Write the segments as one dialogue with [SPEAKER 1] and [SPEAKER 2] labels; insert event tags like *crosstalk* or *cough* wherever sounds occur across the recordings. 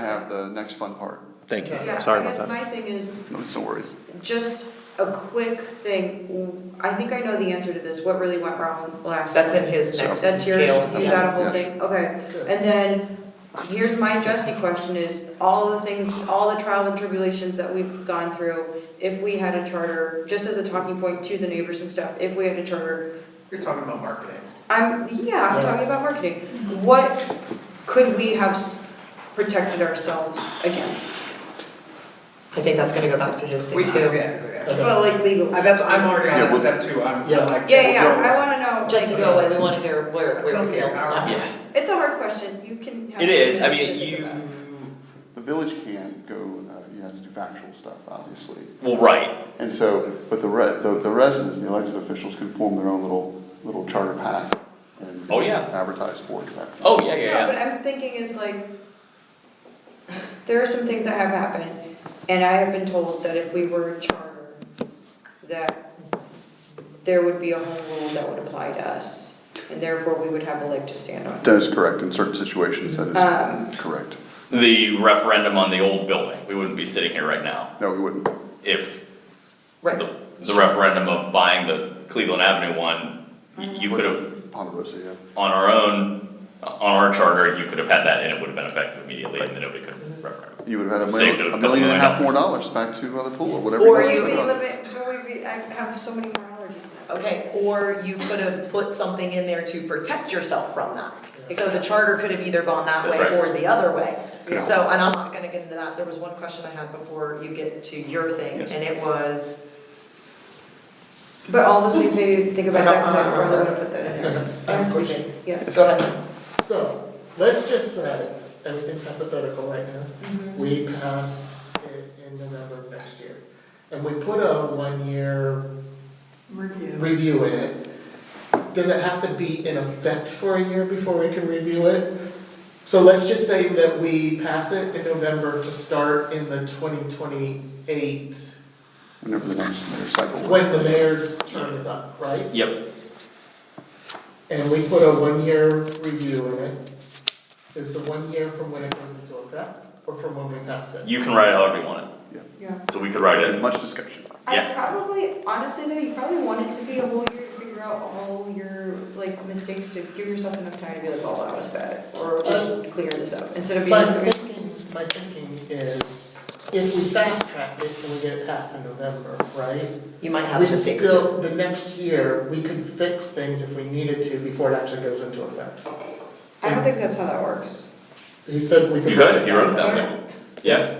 [SPEAKER 1] have the next fun part.
[SPEAKER 2] Thank you,
[SPEAKER 3] Yeah,
[SPEAKER 2] sorry
[SPEAKER 3] I
[SPEAKER 2] about
[SPEAKER 3] guess
[SPEAKER 2] that.
[SPEAKER 3] my thing is,
[SPEAKER 1] No, it's no worries.
[SPEAKER 3] just a quick thing, I think I know the answer to this, what really went wrong last?
[SPEAKER 4] That's in his
[SPEAKER 1] So-
[SPEAKER 4] next scale.
[SPEAKER 3] That's yours, you got a whole
[SPEAKER 1] Yes.
[SPEAKER 3] thing, okay, and then, here's my Jesse question is, all the things, all the trials and tribulations that we've gone through, if we had a charter, just as a talking point to the neighbors and stuff, if we had a charter,
[SPEAKER 5] You're talking about marketing.
[SPEAKER 3] I'm, yeah, I'm talking
[SPEAKER 5] Yes.
[SPEAKER 3] about marketing, what could we have s- protected ourselves against?
[SPEAKER 4] I think that's gonna go back to his
[SPEAKER 5] We
[SPEAKER 4] thing
[SPEAKER 5] do,
[SPEAKER 4] too.
[SPEAKER 5] yeah.
[SPEAKER 6] Okay.
[SPEAKER 3] Well, like legally.
[SPEAKER 5] And that's, I'm already
[SPEAKER 1] Yeah,
[SPEAKER 5] on that
[SPEAKER 1] we'll-
[SPEAKER 5] step two, I'm
[SPEAKER 6] Yeah.
[SPEAKER 5] I'm like.
[SPEAKER 3] Yeah, yeah, I wanna know,
[SPEAKER 4] Just to
[SPEAKER 3] like,
[SPEAKER 4] go away, we wanna hear where,
[SPEAKER 5] It's
[SPEAKER 4] where we
[SPEAKER 5] okay,
[SPEAKER 4] feel
[SPEAKER 5] all right.
[SPEAKER 4] tonight.
[SPEAKER 3] it's a hard question, you can have.
[SPEAKER 7] It is, I mean,
[SPEAKER 3] specific
[SPEAKER 7] you,
[SPEAKER 3] about it.
[SPEAKER 1] The village can go, uh, you have to do factual stuff, obviously.
[SPEAKER 7] well, right,
[SPEAKER 1] And so, but the re, the, the residents, the elected officials can form their own little, little charter path and.
[SPEAKER 7] Oh, yeah.
[SPEAKER 1] Advertise for it. in fact.
[SPEAKER 7] oh, yeah, yeah,
[SPEAKER 3] No, but
[SPEAKER 7] yeah,
[SPEAKER 3] I'm thinking is like, there are some things that have happened, and I have been told that if we were a charter, that there would be a home rule that would apply to us, and therefore we would have a leg to stand on.
[SPEAKER 1] That is correct, in certain situations, that
[SPEAKER 3] Um,
[SPEAKER 1] is correct.
[SPEAKER 7] the referendum on the old building, we wouldn't be sitting here right now
[SPEAKER 1] No, we wouldn't.
[SPEAKER 7] if
[SPEAKER 4] Right,
[SPEAKER 7] the, the referendum of buying the Cleveland Avenue one, y- you could have,
[SPEAKER 1] Ponderosa, yeah.
[SPEAKER 7] on our own, on our charter, you could have had that and it would have been effective immediately and then nobody could have referendum.
[SPEAKER 1] You would have had a
[SPEAKER 7] Saved it
[SPEAKER 1] million,
[SPEAKER 7] a
[SPEAKER 1] a
[SPEAKER 7] couple
[SPEAKER 1] million and a half
[SPEAKER 7] million.
[SPEAKER 1] more dollars back to uh, the pool or whatever.
[SPEAKER 4] Or
[SPEAKER 3] Or
[SPEAKER 1] you
[SPEAKER 3] you'd
[SPEAKER 1] want
[SPEAKER 3] be
[SPEAKER 1] to spend on it.
[SPEAKER 3] limit, or we'd be, I have so many more allergies now.
[SPEAKER 4] okay, or you could have put something in there to protect yourself from that. So the charter could have either gone that way
[SPEAKER 7] That's right.
[SPEAKER 4] or the other way. So, and I'm not gonna get into that, there was one question I had before you get to your thing,
[SPEAKER 7] Yes.
[SPEAKER 4] and it was,
[SPEAKER 3] But all those things, maybe think about that, cause I probably would have put that in
[SPEAKER 6] Okay,
[SPEAKER 3] there.
[SPEAKER 6] I have
[SPEAKER 3] Yes,
[SPEAKER 6] a
[SPEAKER 3] we did.
[SPEAKER 6] question.
[SPEAKER 3] Yes.
[SPEAKER 4] Go ahead.
[SPEAKER 6] So, let's just say, everything's hypothetical right now, we pass it in November of next year. And we put a one-year review in it. Does it have to be in effect for a year before we can review it? So let's just say that we pass it in November to start in the twenty twenty-eight,
[SPEAKER 1] Whenever the next mayor cycle.
[SPEAKER 6] when the mayor's term is up, right?
[SPEAKER 7] Yep,
[SPEAKER 6] And we put a one-year review in it. Is the one year from when it goes into effect or from when we pass it?
[SPEAKER 7] you can write it however you want
[SPEAKER 3] Yeah.
[SPEAKER 7] it, so we could write it
[SPEAKER 1] Much discussion.
[SPEAKER 3] I
[SPEAKER 7] Yeah.
[SPEAKER 3] probably, honestly though, you probably want it to be a whole year to figure out all your, like, mistakes to give yourself enough time to be like, oh, that was bad, or let's clear this up, instead of being
[SPEAKER 6] My
[SPEAKER 3] like,
[SPEAKER 6] thinking, my thinking is, if we fast track it and we get it passed in November, right?
[SPEAKER 4] you might have a
[SPEAKER 6] We
[SPEAKER 4] mistake.
[SPEAKER 6] still, the next year, we could fix things if we needed to before it actually goes into effect.
[SPEAKER 3] I don't think that's how that works.
[SPEAKER 6] He said we could.
[SPEAKER 7] You could, if you wrote it that way. Yeah,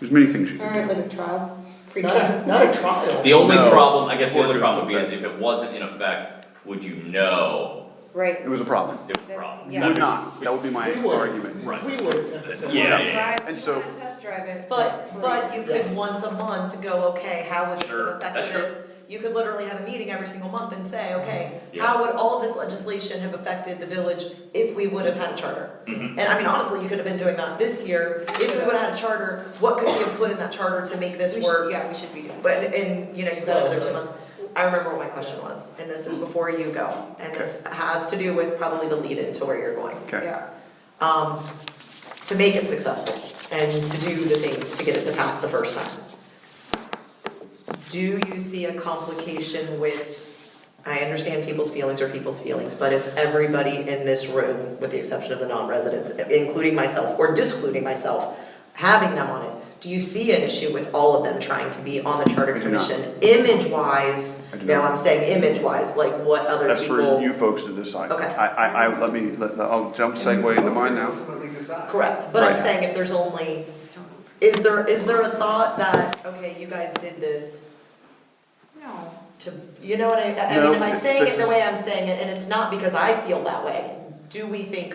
[SPEAKER 1] There's many things you
[SPEAKER 3] All
[SPEAKER 1] can
[SPEAKER 3] right,
[SPEAKER 1] do.
[SPEAKER 3] like a trial, free
[SPEAKER 6] Not
[SPEAKER 3] trial.
[SPEAKER 6] a, not a trial.
[SPEAKER 7] the only
[SPEAKER 1] No.
[SPEAKER 7] problem, I guess the only
[SPEAKER 1] Workers'
[SPEAKER 7] problem would be is
[SPEAKER 1] effect.
[SPEAKER 7] if it wasn't in effect, would you know
[SPEAKER 3] Right,
[SPEAKER 1] It was a problem.
[SPEAKER 7] it was a
[SPEAKER 3] That's-
[SPEAKER 7] problem?
[SPEAKER 3] yeah.
[SPEAKER 1] Would not, that would be my
[SPEAKER 6] We wouldn't-
[SPEAKER 1] argument.
[SPEAKER 7] Right.
[SPEAKER 6] We wouldn't necessarily.
[SPEAKER 7] Yeah, yeah, yeah.
[SPEAKER 3] drive,
[SPEAKER 1] And
[SPEAKER 3] you
[SPEAKER 1] so-
[SPEAKER 3] wanna test drive it.
[SPEAKER 4] But, but you could
[SPEAKER 6] Yes.
[SPEAKER 4] once a month go, okay, how would this have
[SPEAKER 7] Sure, that's
[SPEAKER 4] affected
[SPEAKER 7] true. Mm-hmm.
[SPEAKER 4] this? You could literally have a meeting every single month and say, okay,
[SPEAKER 7] Yeah.
[SPEAKER 4] how would all of this legislation have affected the village if we would have had a charter?
[SPEAKER 7] Mhm.
[SPEAKER 4] And I mean, honestly, you could have been doing that this year, if we would have had a charter, what could we have put in that charter to make this
[SPEAKER 3] We should,
[SPEAKER 4] work?
[SPEAKER 3] yeah, we should be doing.
[SPEAKER 4] But, and, you know, you've got another two
[SPEAKER 6] Well,
[SPEAKER 4] months. I remember what my question was, and this is before you go, and this has to do with probably the lead into where you're going
[SPEAKER 1] Okay.
[SPEAKER 3] Yeah,
[SPEAKER 4] um, to make it successful and to do the things to get it to pass the first time. Do you see a complication with, I understand people's feelings are people's feelings, but if everybody in this room, with the exception of the non-residents, including myself or discluding myself, having them on it, do you see an issue with all of them trying to be on the charter
[SPEAKER 1] I do not.
[SPEAKER 4] commission? Image-wise,
[SPEAKER 1] I do
[SPEAKER 4] now
[SPEAKER 1] not.
[SPEAKER 4] I'm saying image-wise, like what other
[SPEAKER 1] That's
[SPEAKER 4] people.
[SPEAKER 1] for you folks to decide.
[SPEAKER 4] Okay.
[SPEAKER 1] I, I, I, let me, let, I'll jump segue into mine now.
[SPEAKER 5] Ultimately decide.
[SPEAKER 4] Correct, but I'm
[SPEAKER 1] Right.
[SPEAKER 4] saying if there's only, is there, is there a thought that, okay, you guys did this
[SPEAKER 3] no.
[SPEAKER 4] to, you know what I, I mean, am I
[SPEAKER 1] No,
[SPEAKER 4] saying
[SPEAKER 1] this
[SPEAKER 4] it the
[SPEAKER 1] is-
[SPEAKER 4] way I'm saying it, and it's not because I feel that way? Do we think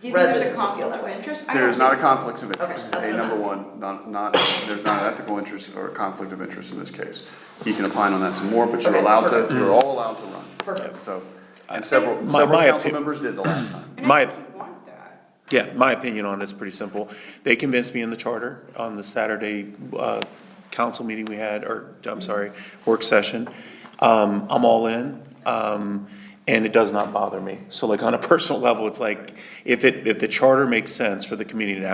[SPEAKER 3] Do you think there's a
[SPEAKER 4] Residents would feel
[SPEAKER 3] conflict
[SPEAKER 4] that
[SPEAKER 3] of
[SPEAKER 4] way.
[SPEAKER 3] interest? I
[SPEAKER 1] There
[SPEAKER 3] don't
[SPEAKER 1] is not a
[SPEAKER 3] think so.
[SPEAKER 1] conflict of interest.
[SPEAKER 4] Okay, that's
[SPEAKER 1] A,
[SPEAKER 4] what I'm
[SPEAKER 1] number one, not, not, there's not an ethical interest or a conflict of interest in this case. You can opine on that some more, but you're
[SPEAKER 4] Okay,
[SPEAKER 1] allowed to,
[SPEAKER 4] perfect.
[SPEAKER 1] you're all allowed to run.
[SPEAKER 4] Perfect.
[SPEAKER 1] So, and several,
[SPEAKER 2] My-
[SPEAKER 1] several
[SPEAKER 2] my
[SPEAKER 1] council
[SPEAKER 2] opi-
[SPEAKER 1] members did the last time.
[SPEAKER 3] And I
[SPEAKER 2] My-
[SPEAKER 3] think you want that.
[SPEAKER 2] Yeah, my opinion on it's pretty simple. They convinced me in the charter on the Saturday, uh, council meeting we had, or, I'm sorry, work session. Um, I'm all in, um, and it *laughs* does not bother me. So like on a personal level, it's like, if it, if the charter makes sense for the community to